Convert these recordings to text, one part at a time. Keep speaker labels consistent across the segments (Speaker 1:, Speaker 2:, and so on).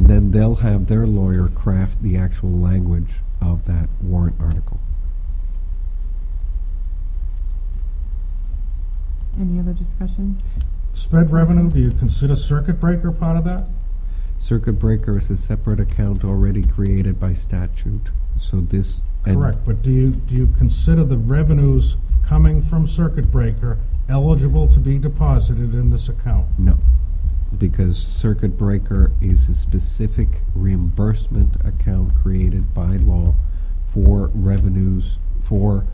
Speaker 1: then they'll have their lawyer craft the actual language of that warrant article.
Speaker 2: Any other discussion?
Speaker 3: Sped revenue, do you consider circuit breaker part of that?
Speaker 1: Circuit breaker is a separate account already created by statute, so this. and-
Speaker 3: Correct, but do you, do you consider the revenues coming from circuit breaker eligible to be deposited in this account?
Speaker 1: No, because circuit breaker is a specific reimbursement account created by law for revenues, for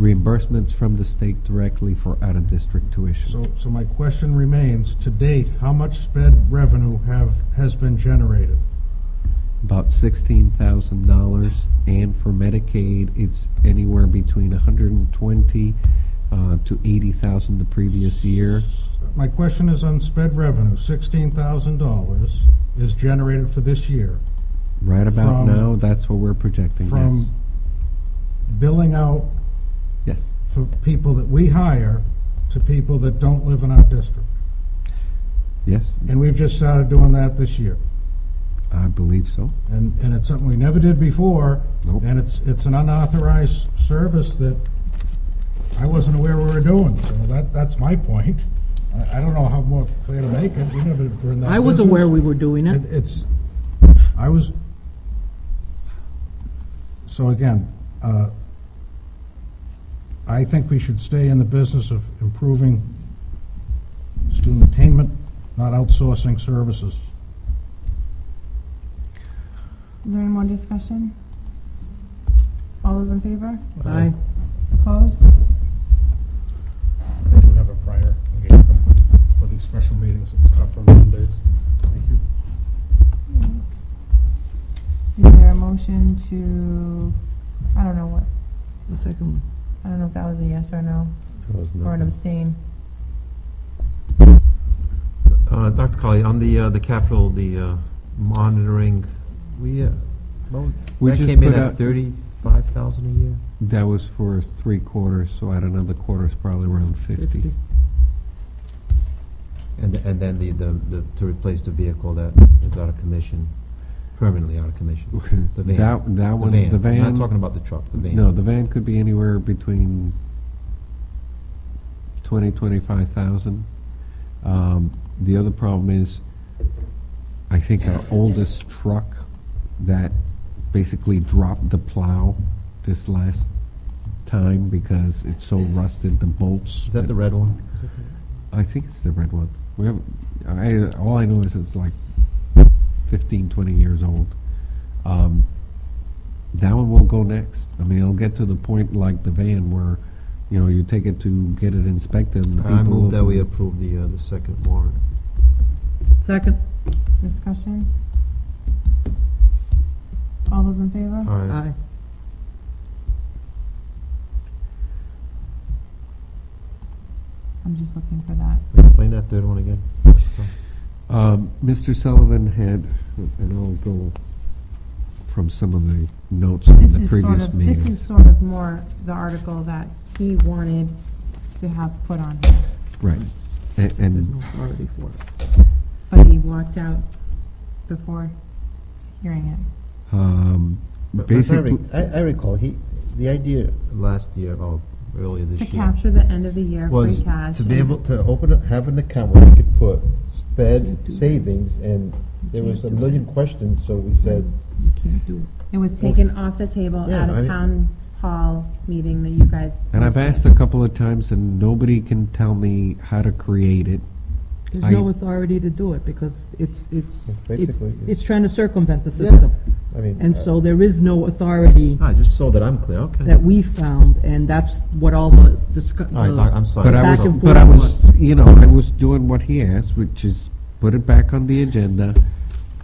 Speaker 1: reimbursements from the state directly for out-of-district tuition.
Speaker 3: So, so my question remains, to date, how much sped revenue have, has been generated?
Speaker 1: about sixteen thousand dollars, and for Medicaid, it's anywhere between a hundred and twenty uh, to eighty thousand the previous year.
Speaker 3: My question is on sped revenue, sixteen thousand dollars is generated for this year
Speaker 1: Right about
Speaker 3: From-
Speaker 1: now, that's what we're projecting.
Speaker 3: from billing out
Speaker 1: yes, yes.
Speaker 3: for people that we hire to people that don't live in our district.
Speaker 1: Yes,
Speaker 3: And we've just started doing that this year.
Speaker 1: I believe so.
Speaker 3: And, and it's something we never did before.
Speaker 1: Nope.
Speaker 3: And it's, it's an unauthorized service that I wasn't aware we were doing, so that, that's my point. I, I don't know how more clear to make it, we never were in that
Speaker 4: I was
Speaker 3: business.
Speaker 4: aware we were doing it.
Speaker 3: It- It's, I was, so again, uh, I think we should stay in the business of improving student attainment, not outsourcing services.
Speaker 2: Is there any more discussion? All those in favor?
Speaker 4: Aye.
Speaker 2: Opposed?
Speaker 3: I do have a prior engagement for these special meetings, it's tough on Mondays. Thank you.
Speaker 2: Is there a motion to, I don't know what,
Speaker 4: The second one.
Speaker 2: I don't know if that was a yes or a no, or an abstain.
Speaker 5: Uh, Dr. Colley, on the, uh, the capital, the uh, monitoring, we, uh, what was-
Speaker 1: We
Speaker 5: that
Speaker 1: just
Speaker 5: came in
Speaker 1: put out-
Speaker 5: at thirty-five thousand a year?
Speaker 1: That was for three quarters, so at another quarter, it's probably around fifty.
Speaker 5: And, and then the, the, the- to replace the vehicle that is out of commission, permanently out of commission? The van.
Speaker 1: That that
Speaker 5: The
Speaker 1: one,
Speaker 5: van.
Speaker 1: the van.
Speaker 5: I'm not talking about the truck, the van.
Speaker 1: No, the van could be anywhere between twenty, twenty-five thousand. Um, the other problem is, I think our oldest truck that basically dropped the plow this last time because it's so rusted, the bolts.
Speaker 5: Is that the red one?
Speaker 1: I think it's the red one. We have, I, all I know is it's like 15, 20 years old. Um, that one will go next. I mean, it'll get to the point like the van where, you know, you take it to get it inspected. And the
Speaker 5: I
Speaker 1: people
Speaker 5: move that we
Speaker 1: will-
Speaker 5: approve the, uh, the second warrant.
Speaker 4: Second.
Speaker 2: Discussion? All those in favor?
Speaker 5: Aye.
Speaker 4: Aye.
Speaker 2: I'm just looking for that.
Speaker 5: Explain that third one again.
Speaker 1: Um, Mr. Sullivan had, and I'll go from some of the notes from
Speaker 2: This
Speaker 1: the
Speaker 2: is sort
Speaker 1: previous
Speaker 2: of,
Speaker 1: meetings.
Speaker 2: this is sort of more the article that he wanted to have put on here,
Speaker 1: right. And,
Speaker 4: There's
Speaker 1: and
Speaker 4: no authority for it.
Speaker 2: but he walked out before hearing it.
Speaker 1: um,
Speaker 5: But- but if I
Speaker 1: basically,
Speaker 5: rec- I, I recall, he, the idea last year, or earlier this
Speaker 2: To
Speaker 5: year.
Speaker 2: capture the end of the year free
Speaker 6: was
Speaker 2: cash.
Speaker 6: to be able to open, up- have an account where we could put sped savings, and there was a million questions, so we said,
Speaker 4: You can't do it.
Speaker 2: It was taken off the table
Speaker 6: Yeah,
Speaker 2: at
Speaker 6: I
Speaker 2: a
Speaker 6: mean-
Speaker 2: town hall meeting that you guys.
Speaker 1: and I've asked
Speaker 2: hosted.
Speaker 1: a couple of times, and nobody can tell me how to create it. I-
Speaker 4: There's no authority to do it because it's, it's, it's,
Speaker 6: Basically, it's-
Speaker 4: it's trying to circumvent the system.
Speaker 6: I mean.
Speaker 4: And
Speaker 6: uh,
Speaker 4: so there is no authority
Speaker 5: Ah, just so that I'm clear, okay.
Speaker 4: that we found, and that's what all the discuss.
Speaker 5: All right, Doc, I'm sorry.
Speaker 1: But I
Speaker 4: Back
Speaker 1: was,
Speaker 4: and
Speaker 1: but I
Speaker 4: forth.
Speaker 1: was, you know, I was doing what he asked, which is put it back on the agenda.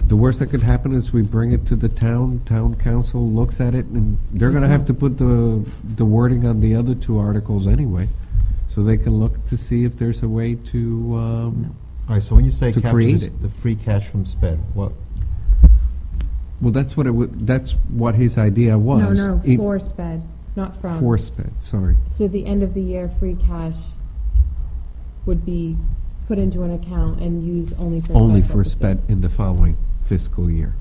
Speaker 1: The worst that could happen is we bring it to the town, town council looks at it, and they're gonna have to put the, the wording on the other two articles anyway. So they can look to see if there's a way to, um,
Speaker 6: All right, so when you say
Speaker 1: to
Speaker 6: capture
Speaker 1: create
Speaker 6: this-
Speaker 1: it.
Speaker 6: the free cash from sped, what,
Speaker 1: well, that's what it would, that's what his idea was.
Speaker 2: No, no,
Speaker 1: It-
Speaker 2: for um, sped, not from.
Speaker 1: For sped, sorry.
Speaker 2: So the end of the year free cash would be put into an account and used only for.
Speaker 1: Only for
Speaker 2: purposes.
Speaker 1: sped in the following fiscal year.